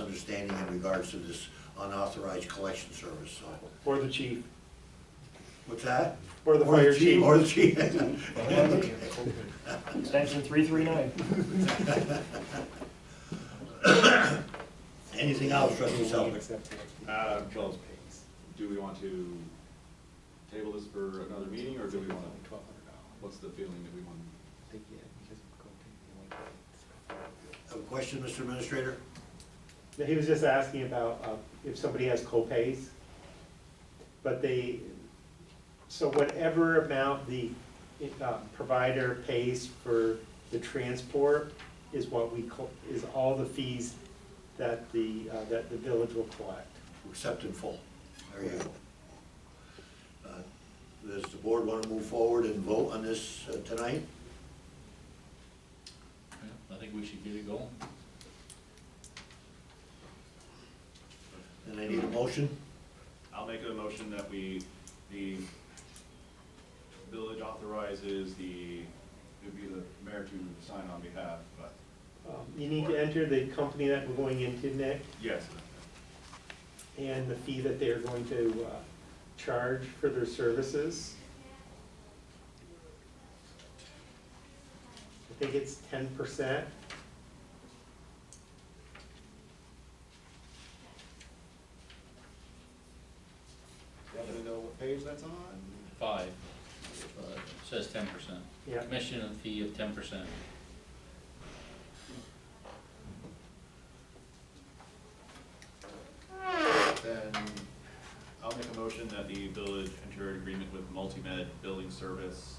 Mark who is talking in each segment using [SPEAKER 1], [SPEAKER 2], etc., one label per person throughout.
[SPEAKER 1] misunderstanding in regards to this unauthorized collection service, so.
[SPEAKER 2] Or the chief,
[SPEAKER 1] What's that?
[SPEAKER 2] or the fire chief.
[SPEAKER 1] Or the chief.
[SPEAKER 3] Extension three three nine.
[SPEAKER 1] Anything else, trustee Southwick?
[SPEAKER 4] Uh, well, do we want to table this for another meeting, or do we want to, what's the feeling that we want?
[SPEAKER 1] Have a question, Mr. Administrator?
[SPEAKER 2] He was just asking about uh, if somebody has co-pays, but they, so whatever amount the uh, provider pays for the transport is what we, co- is all the fees that the, uh, that the village will collect.
[SPEAKER 1] Accept in full. There you go. Uh, Does the board want to move forward and vote on this uh, tonight?
[SPEAKER 5] I think we should get it going.
[SPEAKER 1] And I need a motion?
[SPEAKER 4] I'll make a motion that we, the village authorizes the, it'd be the mayor to sign on behalf, but,
[SPEAKER 2] Um, You need to enter the company that we're going into, Nick,
[SPEAKER 4] yes.
[SPEAKER 2] and the fee that they're going to uh, charge for their services. I think it's ten percent.
[SPEAKER 4] You happen to know what page that's on?
[SPEAKER 5] Five, uh, says ten percent.
[SPEAKER 2] Yeah,
[SPEAKER 5] Commission and fee of ten percent.
[SPEAKER 4] Then, I'll make a motion that the village enter an agreement with Multimed Building Service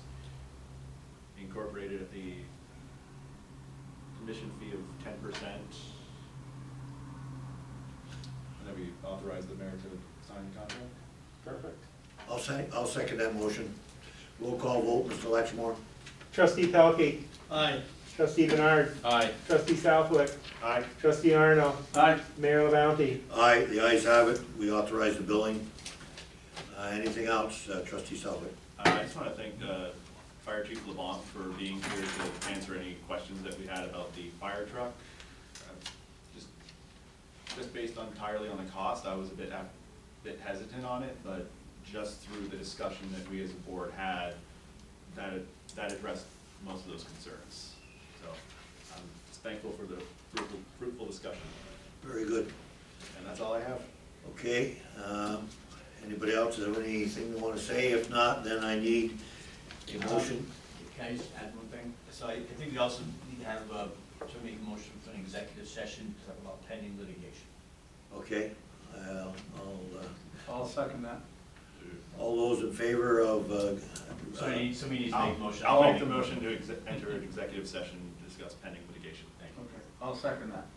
[SPEAKER 4] Incorporated at the commission fee of ten percent. And then we authorize the mayor to sign the contract?
[SPEAKER 2] perfect.
[SPEAKER 1] I'll say, I'll second that motion. Roll call vote, Mr. Latchmore?
[SPEAKER 2] Trustee Pelkey,
[SPEAKER 5] Aye.
[SPEAKER 2] trustee Bernard,
[SPEAKER 5] Aye.
[SPEAKER 2] trustee Southwick,
[SPEAKER 4] Aye.
[SPEAKER 2] trustee Arno,
[SPEAKER 5] Aye.
[SPEAKER 2] mayor LaBounty.
[SPEAKER 1] Aye, the ayes have it. We authorize the billing. Uh, Anything else, uh, trustee Southwick?
[SPEAKER 4] Uh, I just want to thank uh, Fire Chief Levant for being here to answer any questions that we had about the fire truck. Uh, Just just based entirely on the cost, I was a bit, ap- bit hesitant on it, but just through the discussion that we as a board had, that, that addressed most of those concerns. So I'm just thankful for the fruitful, fruitful discussion,
[SPEAKER 1] Very good.
[SPEAKER 4] and that's all I have.
[SPEAKER 1] Okay, um, anybody else have anything they want to say? If not, then I need a
[SPEAKER 6] Um,
[SPEAKER 1] motion.
[SPEAKER 6] Can I just add one thing? So I I think we also need to have, uh, to make a motion for an executive session to talk about pending litigation.
[SPEAKER 1] Okay, I'll, I'll,
[SPEAKER 7] I'll second that.
[SPEAKER 1] uh, all those in favor of, uh,
[SPEAKER 6] Somebody, somebody needs to make a motion.
[SPEAKER 4] I'll make the motion to exe- enter an executive session, to discuss pending litigation. Thank you.
[SPEAKER 7] Okay. I'll second that.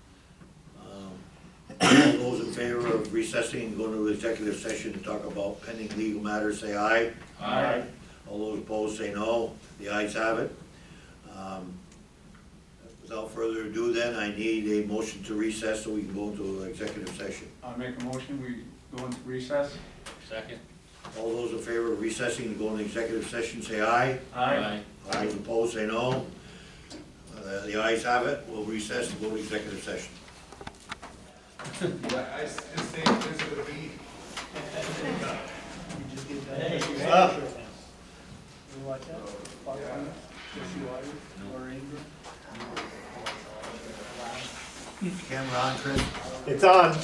[SPEAKER 1] um, all those in favor of recessing and going to executive session to talk about pending legal matters, say aye.
[SPEAKER 5] Aye.
[SPEAKER 1] All those opposed say no. The ayes have it. Um, Without further ado then, I need a motion to recess so we can go into executive session.
[SPEAKER 7] I make a motion, we go into recess.
[SPEAKER 5] Second?
[SPEAKER 1] All those in favor of recessing and going to executive session, say aye.
[SPEAKER 5] Aye.
[SPEAKER 1] All those opposed, say no. Uh, The ayes have it, we'll recess and go to executive session.
[SPEAKER 8] I s- just think there's a beat.
[SPEAKER 3] Hey,
[SPEAKER 6] Hey,
[SPEAKER 3] You like that?
[SPEAKER 1] Camera on, Chris.
[SPEAKER 2] It's on.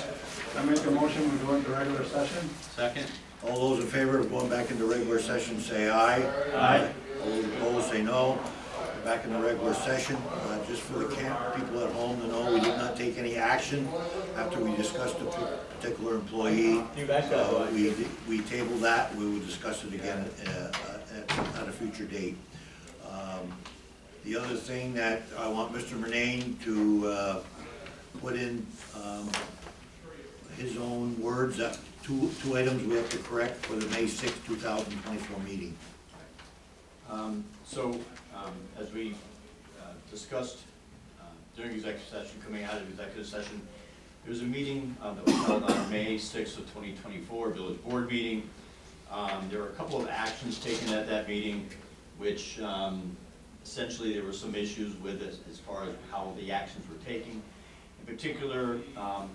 [SPEAKER 7] I make a motion, we go into regular session.
[SPEAKER 5] Second?
[SPEAKER 1] All those in favor of going back into regular session, say aye.
[SPEAKER 5] Aye.
[SPEAKER 1] All those opposed, say no. We're Back in the regular session, Uh, just for the camp, people at home to know, we did not take any action after we discussed a p- particular employee.
[SPEAKER 6] You back up,
[SPEAKER 1] Uh,
[SPEAKER 6] Mike.
[SPEAKER 1] We, we tabled that, we will discuss it again uh, at at a future date. Um, The other thing that I want Mr. Murnane to uh, put in um, his own words, uh, two, two items we have to correct for the May sixth, two thousand twenty-four meeting.
[SPEAKER 6] Um, So, um, as we uh, discussed uh, during executive session, coming out of executive session, there was a meeting uh, that was held on May sixth of twenty twenty-four, village board meeting. Um, There were a couple of actions taken at that meeting, which um, essentially there were some issues with as as far as how the actions were taken. In particular, um,